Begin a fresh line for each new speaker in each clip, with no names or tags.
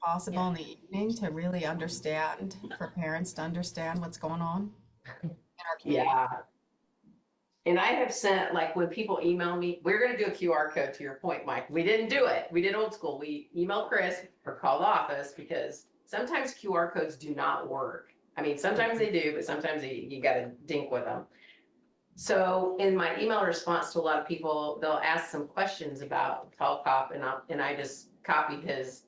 possible in the evening to really understand, for parents to understand what's going on in our community.
Yeah. And I have sent, like, when people email me, we're gonna do a QR code to your point, Mike. We didn't do it. We did old school. We emailed Chris or called the office because sometimes QR codes do not work. I mean, sometimes they do, but sometimes you, you gotta dink with them. So in my email response to a lot of people, they'll ask some questions about Tall Cop and I, and I just copied his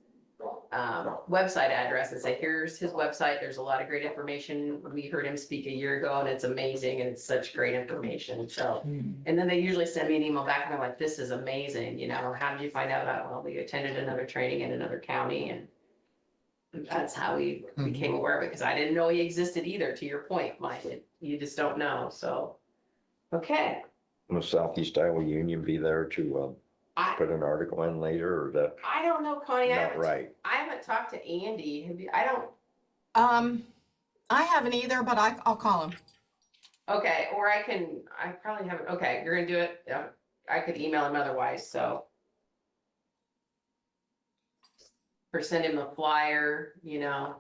um, website address and say, here's his website. There's a lot of great information. We heard him speak a year ago and it's amazing and it's such great information. So,
Hmm.
and then they usually send me an email back and they're like, this is amazing. You know, how did you find out about? Well, we attended another training in another county and that's how we became
Hmm.
aware of it because I didn't know he existed either, to your point, Mike. It- You just don't know. So, okay.
Will Southeast Iowa Union be there to uh,
I,
put an article in later or that?
I don't know, Connie. I
Not
haven't,
right.
I haven't talked to Andy. Have you, I don't,
Um, I haven't either, but I, I'll call him.
Okay, or I can, I probably haven't, okay, you're gonna do it, yeah, I could email him otherwise, so. Or send him a flyer, you know,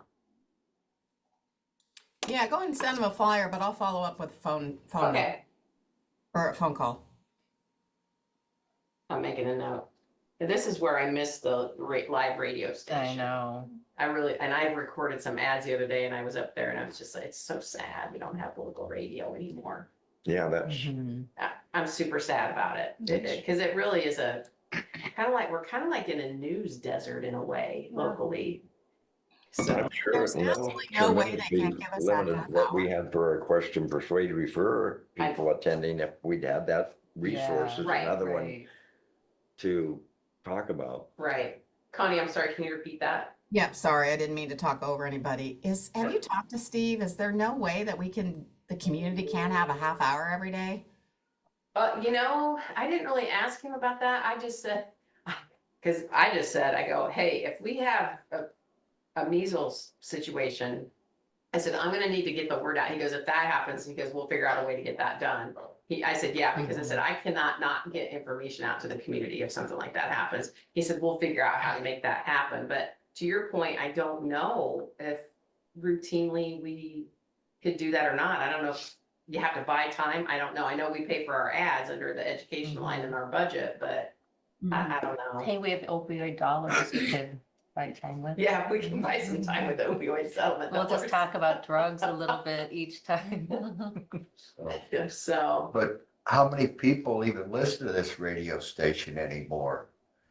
Yeah, go ahead and send him a flyer, but I'll follow up with a phone, phone, number
okay,
or a phone call.
I'm making a note. And This is where I missed the ra- live radio
I
station.
know.
I really, and I recorded some ads the other day and I was up there and I was just like, it's so sad, we don't have local radio anymore.
Yeah, that's,
Mhm.
I- I'm super sad about it because it really is a kind of like we're kind of like in a news desert in a way locally. So
I'm sure.
There's
you know,
absolutely no way
tremendous
they can
be
give us that
limited
half
What we
hour.
had for our question persuade refer
I-
people attending, if we'd had that resource
Yeah.
is
Right,
another one
Right.
to talk about.
right, Connie, I'm sorry. Can you repeat that?
Yep, sorry, I didn't mean to talk over anybody. Is, have you talked to Steve? Is there no way that we can, the community can have a half hour every day?
Uh, you know, I didn't really ask him about that. I just said because I just said I go, hey, if we have a, a measles situation, I said I'm going to need to get the word out. He goes, if that happens, he goes, we'll figure out a way to get that done. He, I said, yeah, because I said, I cannot not get information out to the community if something like that happens. He said, we'll figure out how to make that happen. But to your point, I don't know if routinely we could do that or not. I don't know if you have to buy time. I don't know. I know we pay for our ads under the education line in our budget, but I, I don't know.
Hey, we have opioid dollars we could buy time with.
Yeah, we can buy some time with opioid settlement.
We'll just
dollars.
talk about drugs a little bit each time.
So,
So,
But how many people even listen to this radio station anymore?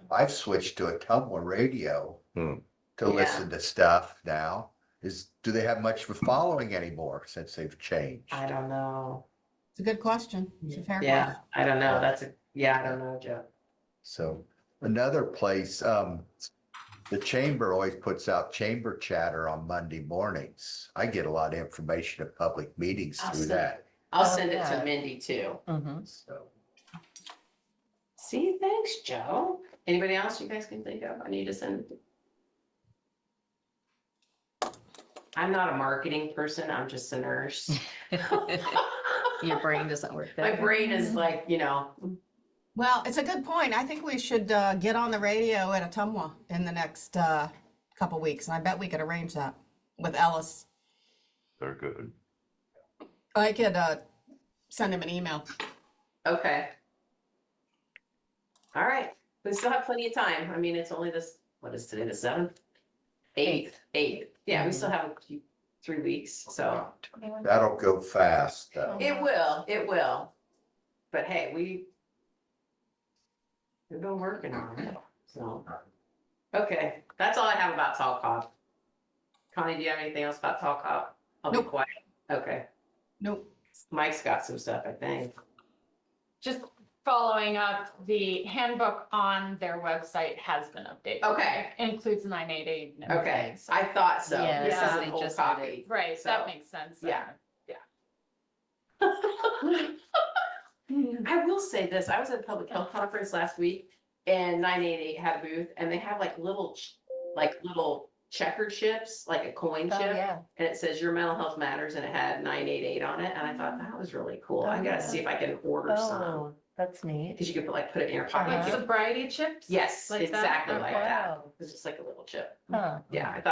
I've switched to a Tumblr radio
Hmm.
to
Yeah.
listen to stuff now. Is, do they have much of a following anymore since they've changed?
I don't know.
It's a good question. It's a fair
Yeah,
question.
I don't know. That's a, yeah, I don't know, Joe.
So another place, um, the chamber always puts out chamber chatter on Monday mornings. I get a lot of information at public meetings through
Awesome.
that.
I'll
Oh,
send it to
yeah.
Mindy too.
Mhm.
So
See, thanks, Joe. Anybody else you guys can think of? I need to send. I'm not a marketing person. I'm just a nurse.
Your brain doesn't work
My
that.
brain is
way.
like, you know,
Well, it's a good point. I think we should uh, get on the radio at Atumwa in the next uh, couple weeks, and I bet we could arrange that with Ellis.
They're good.
I could uh, send him an email.
okay. All right. We still have plenty of time. I mean, it's only this, what is today, the seventh? Eighth, eighth. Yeah, we still have a few- three weeks, so.
that'll go fast though.
It will, it will. But hey, we. We've been working on it, so. Okay, that's all I have about Tall Cop. Connie, do you have anything else about Tall Cop? I'll be
Nope.
quiet. Okay,
Nope.
Mike's got some stuff, I think.
just following up, the handbook on their website has been updated.
Okay.
Includes nine eight eight. and
Okay,
everything, so-
I thought so.
Yeah,
This
this
is
is
an
they
old
just did it.
copy.
Right,
so,
that makes sense. then.
yeah. I will say this, I was at a public health conference last week and nine eight eight had a booth and they have like little, ch- like little checker chips, like a coin
Oh,
chip.
yeah.
And it says your mental health matters and it had nine eight eight on it. And I thought that was really cool. I gotta see if I can order some.
Oh, That's neat.
Because you could put, like put it in your
Like
pocket.
sobriety chips?
Yes,
Like that?
exactly like that.
Oh, Wow.
It's just like a little chip.
Huh.
Yeah, I thought